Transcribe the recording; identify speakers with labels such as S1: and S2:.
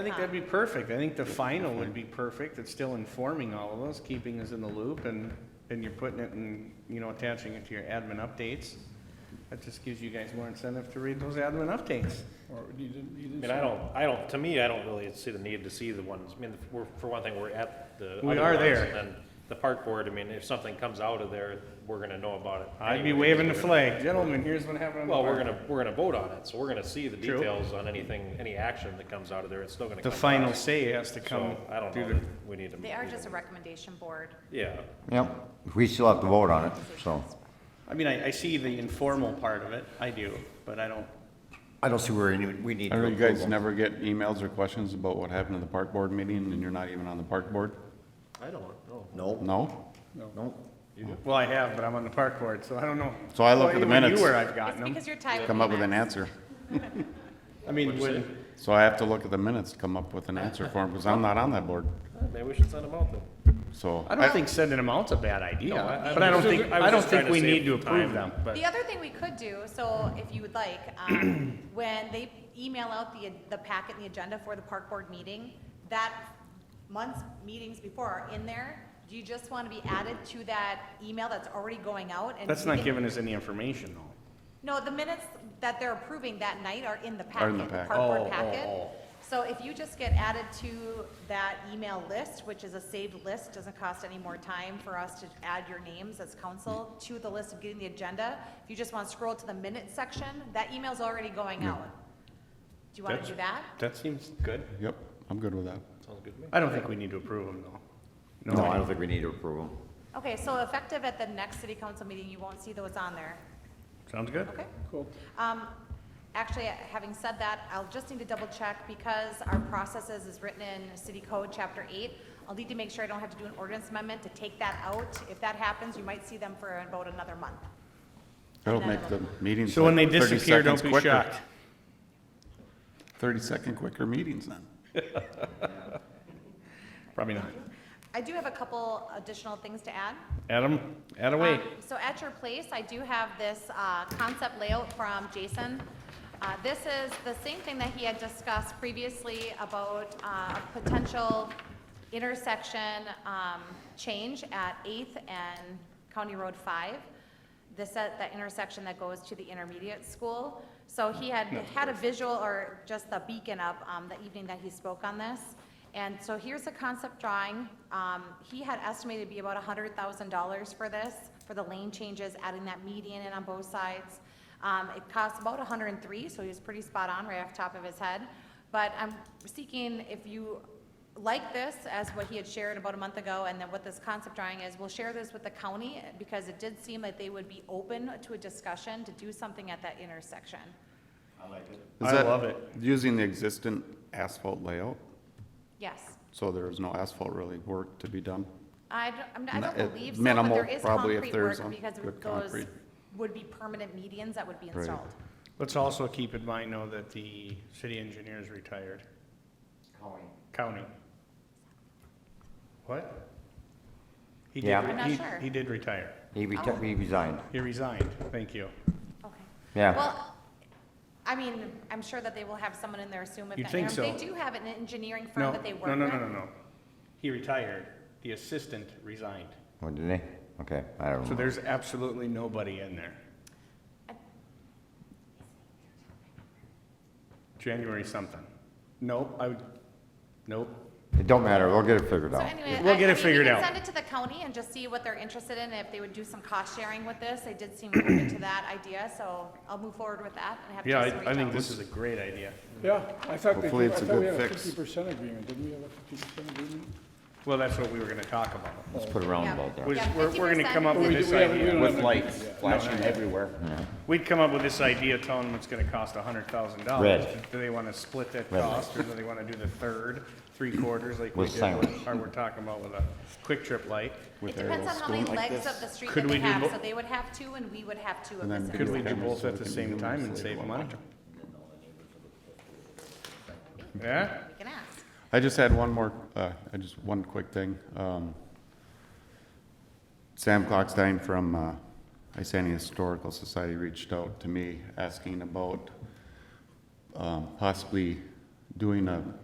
S1: I think that'd be perfect. I think the final would be perfect. It's still informing all of us, keeping us in the loop, and, and you're putting it and, you know, attaching it to your admin updates. That just gives you guys more incentive to read those admin updates.
S2: Or you didn't, you
S3: I
S2: didn't.
S3: mean, I don't, I don't, to me, I don't really see the need to see the ones, I mean, we're, for one thing, we're at the.
S1: We
S3: other
S1: are
S3: ones,
S1: there.
S3: And then the park board, I mean, if something comes out of there, we're gonna know about it.
S1: I'd be
S3: anyway.
S1: waving the flag. Gentlemen, here's what happened. on the
S3: Well, we're
S1: park."
S3: gonna, we're gonna vote on it, so we're gonna see the
S1: True.
S3: details on anything, any action that comes out of there, it's still gonna
S1: The
S3: come. to
S1: final
S3: us.
S1: say has to come
S3: So, I don't
S1: through
S3: know,
S1: the
S3: that we need to.
S4: They are
S3: even-
S4: just a recommendation board.
S3: Yeah,
S5: Yep, we still have to vote on it, so.
S1: I mean, I, I see the informal part of it, I do, but I don't,
S5: I don't see where any, we need
S2: I
S5: to
S2: know you
S5: approve
S2: guys
S5: them.
S2: never get emails or questions about what happened at the park board meeting, and you're not even on the park board?
S3: I don't know.
S5: No,
S2: No?
S5: no,
S1: well, I have, but I'm on the park board, so I don't know.
S2: So I look at the
S1: Well, when
S2: minutes.
S1: You were, I've
S4: It's
S1: gotten them.
S4: because you're tied.
S2: Come up with an
S4: Max.
S2: answer.
S1: I mean, when,
S2: So I have to look at the minutes, to come up with an answer for them, because I'm not on that board,
S3: Uh, Maybe we should send them out then.
S2: so.
S1: I don't think sending them out's a bad
S3: No, I-
S1: idea,
S3: I
S1: but I don't
S3: was just-
S1: think,
S3: I was
S1: I don't
S3: just trying
S1: think
S3: to
S1: we
S3: save
S1: need to approve
S3: time.
S1: them, but.
S4: The other thing we could do, so if you would like, um, when they email out the, the packet and the agenda for the park board meeting, that month's meetings before are in there, do you just want to be added to that email that's already going out? and
S1: That's
S4: you
S1: not
S4: can-
S1: giving us any information, though.
S4: No, the minutes that they're approving that night are in the
S2: Are in the packet.
S4: packet, park board
S1: Oh, oh,
S4: packet.
S1: oh.
S4: So if you just get added to that email list, which is a saved list, doesn't cost any more time for us to add your names as council to the list of getting the agenda. If you just want to scroll to the minutes section, that email's already going out. Do you want
S1: That's-
S4: to do that?
S1: That seems good.
S2: Yep, I'm good with that.
S3: Sounds good to me.
S1: I don't think we need to approve them, though.
S5: no, I don't think we need to approve them.
S4: Okay, so effective at the next city council meeting, you won't see those on there.
S1: Sounds good.
S4: Okay. Cool. Um, actually, having said that, I'll just need to double check because our processes is written in city code, chapter eight. I'll need to make sure I don't have to do an ordinance amendment to take that out. If that happens, you might see them for about another month.
S2: That'll make the meetings
S1: So when they
S2: like thirty
S1: disappear,
S2: seconds
S1: don't be
S2: quicker.
S1: shocked.
S2: Thirty-second quicker meetings then.
S1: Probably not.
S4: I do have a couple additional things to add.
S1: Adam, add away.
S4: Um, So at your place, I do have this uh, concept layout from Jason. Uh, This is the same thing that he had discussed previously about uh, potential intersection um, change at 8th and County Road 5, this, at that intersection that goes to the intermediate school. So he had, had a visual or just the beacon up um, the evening that he spoke on this. And so here's a concept drawing. Um, he had estimated to be about hundred thousand dollars for this, for the lane changes, adding that median in on both sides. Um, it costs about $103, so he was pretty spot on right off the top of his head. But I'm seeking if you like this as what he had shared about a month ago, and then what this concept drawing is, we'll share this with the county because it did seem like they would be open to a discussion to do something at that intersection.
S2: Is
S1: I
S2: that
S1: love it.
S2: Using the existing asphalt layout,
S4: Yes.
S2: so there is no asphalt really work to be done.
S4: I don't, I'm- I
S2: N- uh,
S4: don't believe so, but
S2: minimal,
S4: there is
S2: probably, if
S4: concrete
S2: there's
S4: work
S2: some
S4: because
S2: good
S4: those
S2: concrete.
S4: would be permanent medians that would be
S2: Right.
S4: installed.
S1: Let's also keep in mind, though, that the city engineer is retired. County. What? He did
S5: Yeah.
S1: re-
S4: I'm not
S1: he-
S4: sure.
S1: He did retire.
S5: He reti- he resigned.
S1: He resigned. Thank you.
S4: Okay.
S5: Yeah.
S4: Well, I mean, I'm sure that they will have someone in there assume if.
S1: You'd
S4: that-
S1: think so.
S4: They do have an engineering firm
S1: No,
S4: that they work
S1: no,
S4: with.
S1: no, no, no, no. He retired. The assistant resigned.
S5: What Oh, did they? Okay, I don't
S1: So
S5: know.
S1: there's absolutely nobody in there. January something. Nope, I would, nope.
S5: It don't matter, we'll get it figured
S4: So
S5: out.
S4: anyway.
S1: We'll
S4: I-
S1: get
S4: I
S1: it
S4: mean, we
S1: figured
S4: can
S1: out.
S4: Send it to the county and just see what they're interested in, if they would do some cost sharing with this. They did seem open to that idea, so I'll move forward with that and have
S1: Yeah,
S4: Jason reach
S1: I, I think
S4: out.
S1: this is a great idea.
S6: Yeah, I thought they,
S2: Hopefully
S6: did- I
S2: it's a
S6: thought we
S2: good
S6: had a
S2: fix.
S6: fifty percent agreement, didn't we have a fifty percent agreement?
S1: Well, that's what we were gonna talk about.
S5: Let's put a roundabout
S4: Yeah.
S5: there.
S1: Was, we're, we're gonna come up
S6: But
S1: with
S6: we do-
S1: this
S6: we haven't- we
S1: idea.
S6: don't have an agreement
S7: lights
S6: yet.
S7: flashing everywhere.
S1: We'd come up with this idea telling them it's gonna cost a hundred thousand dollars.
S5: Red.
S1: Do they wanna split that
S5: Red.
S1: cost, or do they wanna do the third, three quarters, like we
S5: With
S1: did, with-
S5: signage.
S1: or we're talking about with a quick trip light?
S4: It depends on how many legs of the street
S1: Could
S4: that they
S1: we do
S4: have,
S1: bo-
S4: so they would have two and we would have two of
S2: And then
S4: this.
S2: we
S1: Could
S2: Video
S1: we do
S2: cameras
S1: both
S2: so
S1: at
S2: they
S1: the
S2: can
S1: same
S2: do
S1: time
S2: this
S1: and
S2: later
S1: save
S2: on.
S1: money? Yeah?
S4: We can ask.
S2: I just had one more, uh, I just, one quick thing. Um, Sam Klockstein from, uh, Isani Historical Society reached out to me asking about, um, possibly doing a